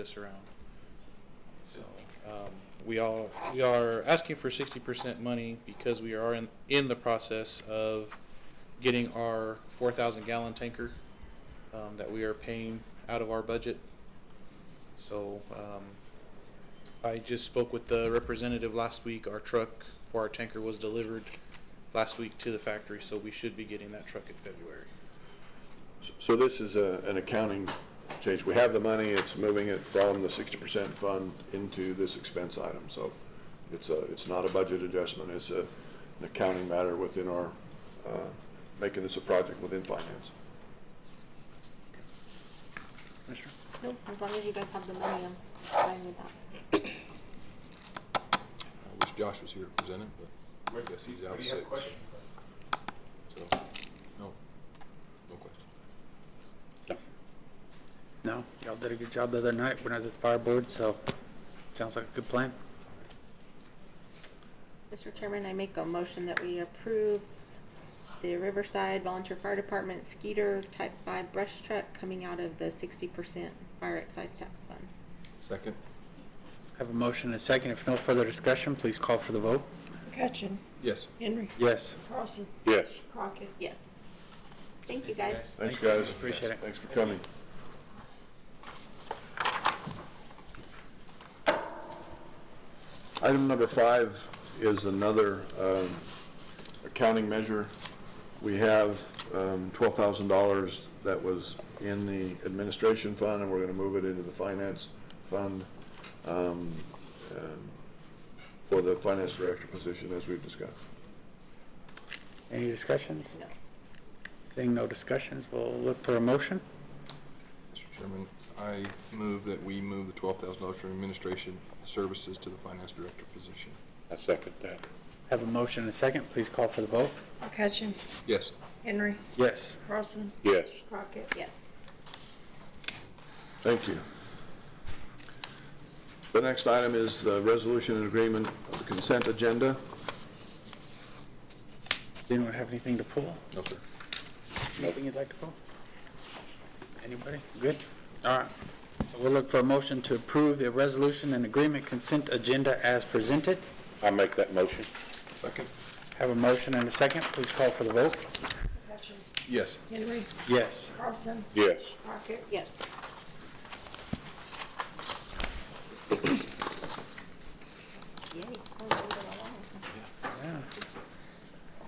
this around. So, um, we all, we are asking for sixty percent money because we are in, in the process of getting our four thousand gallon tanker, um, that we are paying out of our budget. So, um, I just spoke with the representative last week. Our truck for our tanker was delivered last week to the factory, so we should be getting that truck in February. So this is a, an accounting change. We have the money, it's moving it from the sixty percent fund into this expense item, so it's a, it's not a budget adjustment, it's a, an accounting matter within our, uh, making this a project within finance. Commissioner? Nope, as long as you guys have the money, I'm fine with that. I wish Josh was here to present it, but I guess he's out sick. So, no, no question. No, y'all did a good job the other night when I was at the fire board, so sounds like a good plan. Mr. Chairman, I make a motion that we approve the Riverside Volunteer Fire Department Skeeter Type Five brush truck coming out of the sixty percent fire excise tax fund. Second? Have a motion and a second. If no further discussion, please call for the vote. McCutcheon, Yes. Henry, Yes. Carlson, Yes. Crockett. Yes. Thank you, guys. Thanks, guys. Appreciate it. Thanks for coming. Item number five is another um, accounting measure. We have um, $12,000 that was in the administration fund, and we're going to move it into the finance fund um, um, for the finance director position, as we've discussed. Any discussions? No. Seeing no discussions, we'll look for a motion. Mr. Chairman, I move that we move the twelve thousand dollars from administration services to the finance director position. I second that. Have a motion and a second. Please call for the vote. McCutcheon, Yes. Henry, Yes. Carlson, Yes. Crockett. Yes. Thank you. The next item is the resolution and agreement of the consent agenda. Does anyone have anything to pull? No, sir. Anything you'd like to pull? Anybody? Good. All right. So We'll look for a motion to approve the resolution and agreement consent agenda as presented. I make that motion. Second? Have a motion and a second. Please call for the vote. McCutcheon, Yes. Henry, Yes. Carlson, Yes. Crockett. Yes. Yay. Oh, we're moving along. Yeah.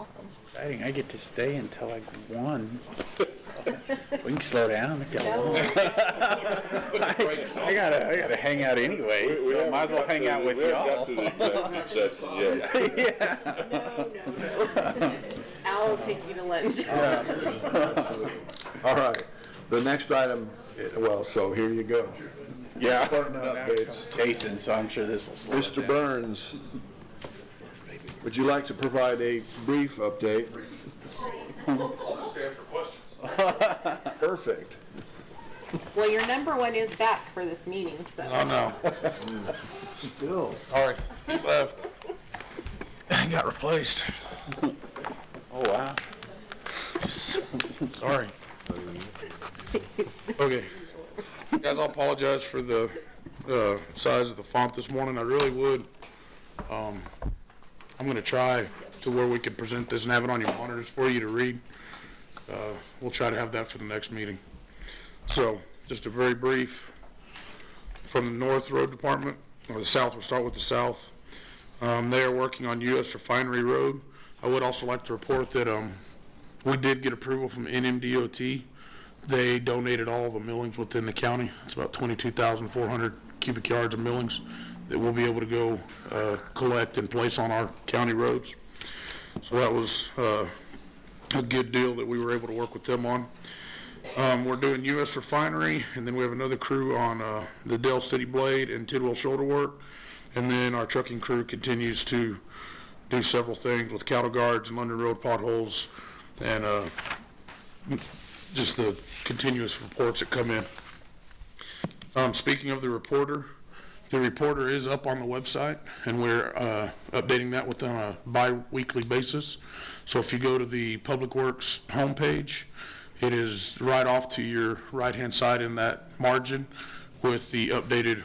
Awesome. Exciting. I get to stay until like one. We can slow down if y'all want. I gotta, I gotta hang out anyway, so might as well hang out with y'all. No, no, no. I'll take you to lunch. All right. The next item, eh, well, so here you go. Yeah. Department updates. Jason, so I'm sure this will slow it Mr. Burns, would you like to provide a brief update? Perfect. Well, your number one is back for this meeting, so. Still. Sorry, he left. Got replaced. Oh, wow. Sorry. Okay. Guys, I apologize for the uh, size of the font this morning, I really would. Um, I'm going to try to where we could present this and have it on your monitors for you to read. Uh, We'll try to have that for the next meeting. So, just a very brief, from the North Road Department, or the South, we'll start with the South. Um, They are working on US Refinery Road. I would also like to report that um, we did get approval from NMDOT they donated all the millings within the county. It's about 22,400 cubic yards of millings that we'll be able to go uh, collect and place on our county roads. So that was uh, a good deal that we were able to work with them on. Um, We're doing US Refinery, and then we have another crew on uh, the Dell City Blade and Tidwell Shoulder Work. And then our trucking crew continues to do several things with cattle guards and London Road potholes and uh, just the continuous reports that come in. Um, speaking of the reporter, the reporter is up on the website and we're, uh, updating that within a bi-weekly basis. So if you go to the Public Works homepage, it is right off to your right-hand side in that margin with the updated